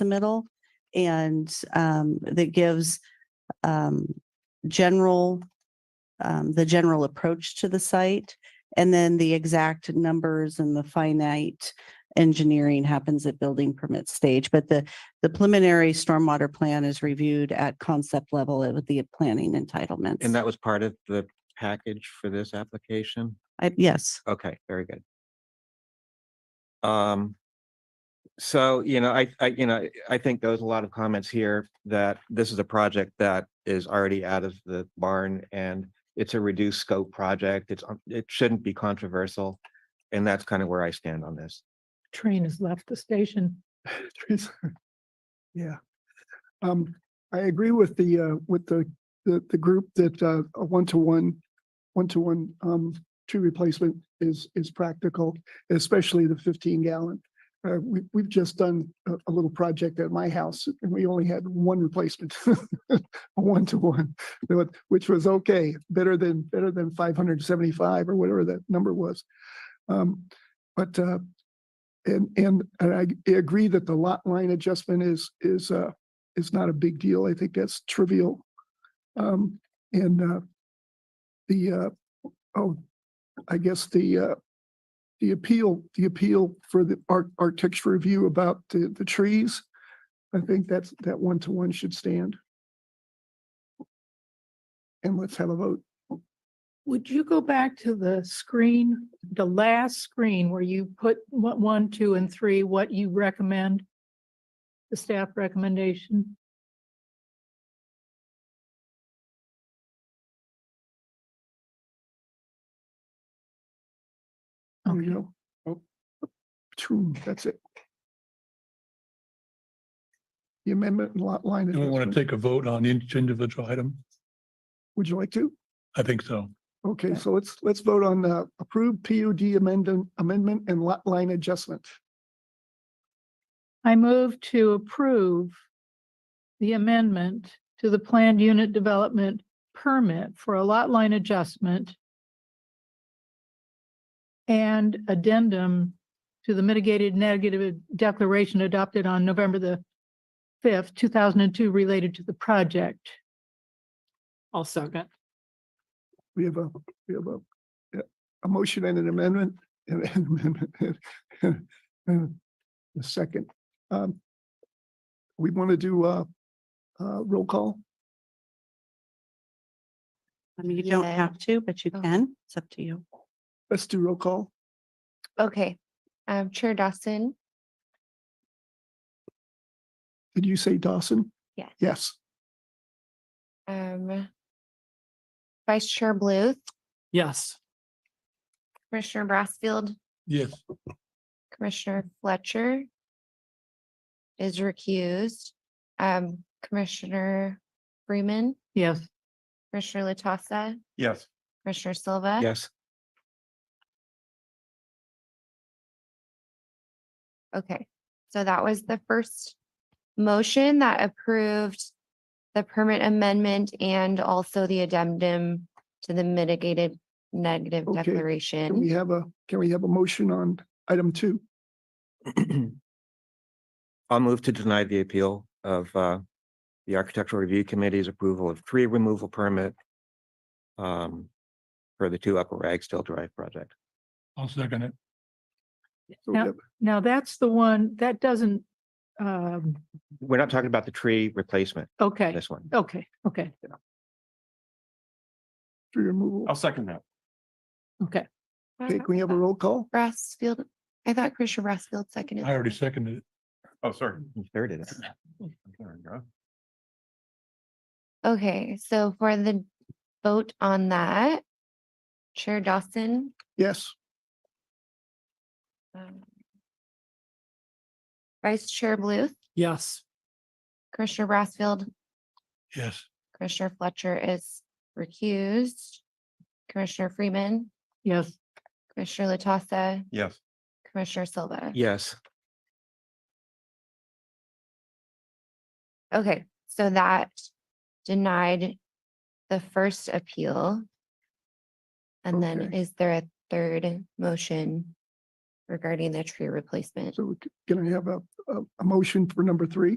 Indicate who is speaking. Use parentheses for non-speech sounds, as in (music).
Speaker 1: submittal. And um, that gives um, general, um, the general approach to the site. And then the exact numbers and the finite engineering happens at building permit stage. But the, the preliminary stormwater plan is reviewed at concept level with the planning entitlements.
Speaker 2: And that was part of the package for this application?
Speaker 1: I, yes,
Speaker 2: Okay, very good. Um, so, you know, I, I, you know, I think there was a lot of comments here that this is a project that is already out of the barn and it's a reduced scope project. It's, un- it shouldn't be controversial. And that's kind of where I stand on this.
Speaker 3: train has left the station.
Speaker 4: Trees are- (laughs) Yeah. Um, I agree with the, uh, with the, the, the group that, uh, a one-to-one, one-to-one, um, tree replacement is, is practical, especially the fifteen gallon. Uh, we, we've just done a, a little project at my house and we only had one replacement, (laughs) a one-to-one, but- which was okay, better than, better than five hundred and seventy-five or whatever that number was. Um, but, uh, and, and, and I g- agree that the lot line adjustment is, is, uh, is not a big deal. I think that's trivial. Um, and, uh, the, uh, oh, I guess the, uh, the appeal, the appeal for the art, architecture review about the, the trees. I think that's, that one-to-one should stand. And let's have a vote.
Speaker 3: Would you go back to the screen, the last screen where you put what one, two, and three, what you recommend? The staff recommendation?
Speaker 4: There we
Speaker 3: Okay.
Speaker 4: go. Oh, Two, that's it. The amendment and lot line.
Speaker 5: Do we want
Speaker 4: adjustment.
Speaker 5: to take a vote on each individual item?
Speaker 4: Would you like to?
Speaker 5: I think so.
Speaker 4: Okay, so let's, let's vote on uh, approved PUD amendment, amendment and lot line adjustment.
Speaker 3: I move to approve the amendment to the planned unit development permit for a lot line adjustment and addendum to the mitigated negative declaration adopted on November the fifth, two thousand and two, related to the project. I'll second.
Speaker 4: We have a, we have a, yeah, a motion and an amendment and an (laughs) amendment. and- and A second. Um, We want to do a, uh roll call.
Speaker 1: I mean, you don't
Speaker 6: Yeah.
Speaker 1: have to, but you
Speaker 6: Oh.
Speaker 1: can. It's up to you.
Speaker 4: Let's do roll call.
Speaker 6: Okay, um, Chair Dawson,
Speaker 4: Did you say Dawson?
Speaker 6: Yes.
Speaker 4: Yes.
Speaker 6: um, Vice Chair Bluth,
Speaker 3: Yes.
Speaker 6: Commissioner Brassfield,
Speaker 5: Yes,
Speaker 6: Commissioner Fletcher is recused, um, Commissioner Freeman,
Speaker 3: Yes.
Speaker 6: Commissioner Latassa,
Speaker 2: Yes.
Speaker 6: Commissioner Silva.
Speaker 2: Yes,
Speaker 6: Okay, so that was the first motion that approved the permit amendment and also the addendum to the mitigated negative
Speaker 4: Okay, can
Speaker 6: declaration.
Speaker 4: Can we have a, can we have a motion on item two?
Speaker 2: (clears throat) I'll move to deny the appeal of, uh, the Architectural Review Committee's approval of tree removal permit um, for the two Upper Ragsdale Drive project.
Speaker 5: I'll second it.
Speaker 4: So we
Speaker 3: Yeah.
Speaker 4: have-
Speaker 3: Now, that's the one, that doesn't, um,
Speaker 2: We're not talking about the tree replacement,
Speaker 3: okay,
Speaker 2: this one.
Speaker 3: okay, okay,
Speaker 4: Tree removal.
Speaker 2: second that.
Speaker 3: okay.
Speaker 6: What
Speaker 4: Okay,
Speaker 6: about
Speaker 4: can we have a roll call?
Speaker 6: Brassfield, I thought Commissioner Brassfield seconded.
Speaker 5: I already seconded it.
Speaker 2: Oh, sorry. Third it. (clears throat)
Speaker 6: Okay, so for the vote on that, Chair Dawson.
Speaker 4: Yes.
Speaker 6: um, Vice Chair Bluth,
Speaker 3: Yes.
Speaker 6: Commissioner Brassfield,
Speaker 5: Yes,
Speaker 6: Commissioner Fletcher is recused. Commissioner Freeman,
Speaker 3: Yes.
Speaker 6: Commissioner Latassa,
Speaker 2: Yes.
Speaker 6: Commissioner Silva.
Speaker 2: Yes.
Speaker 6: Okay, so that denied the first appeal. And then
Speaker 4: Okay.
Speaker 6: is there a third motion regarding the tree replacement?
Speaker 4: So we c- can I have a, a, a motion for number three?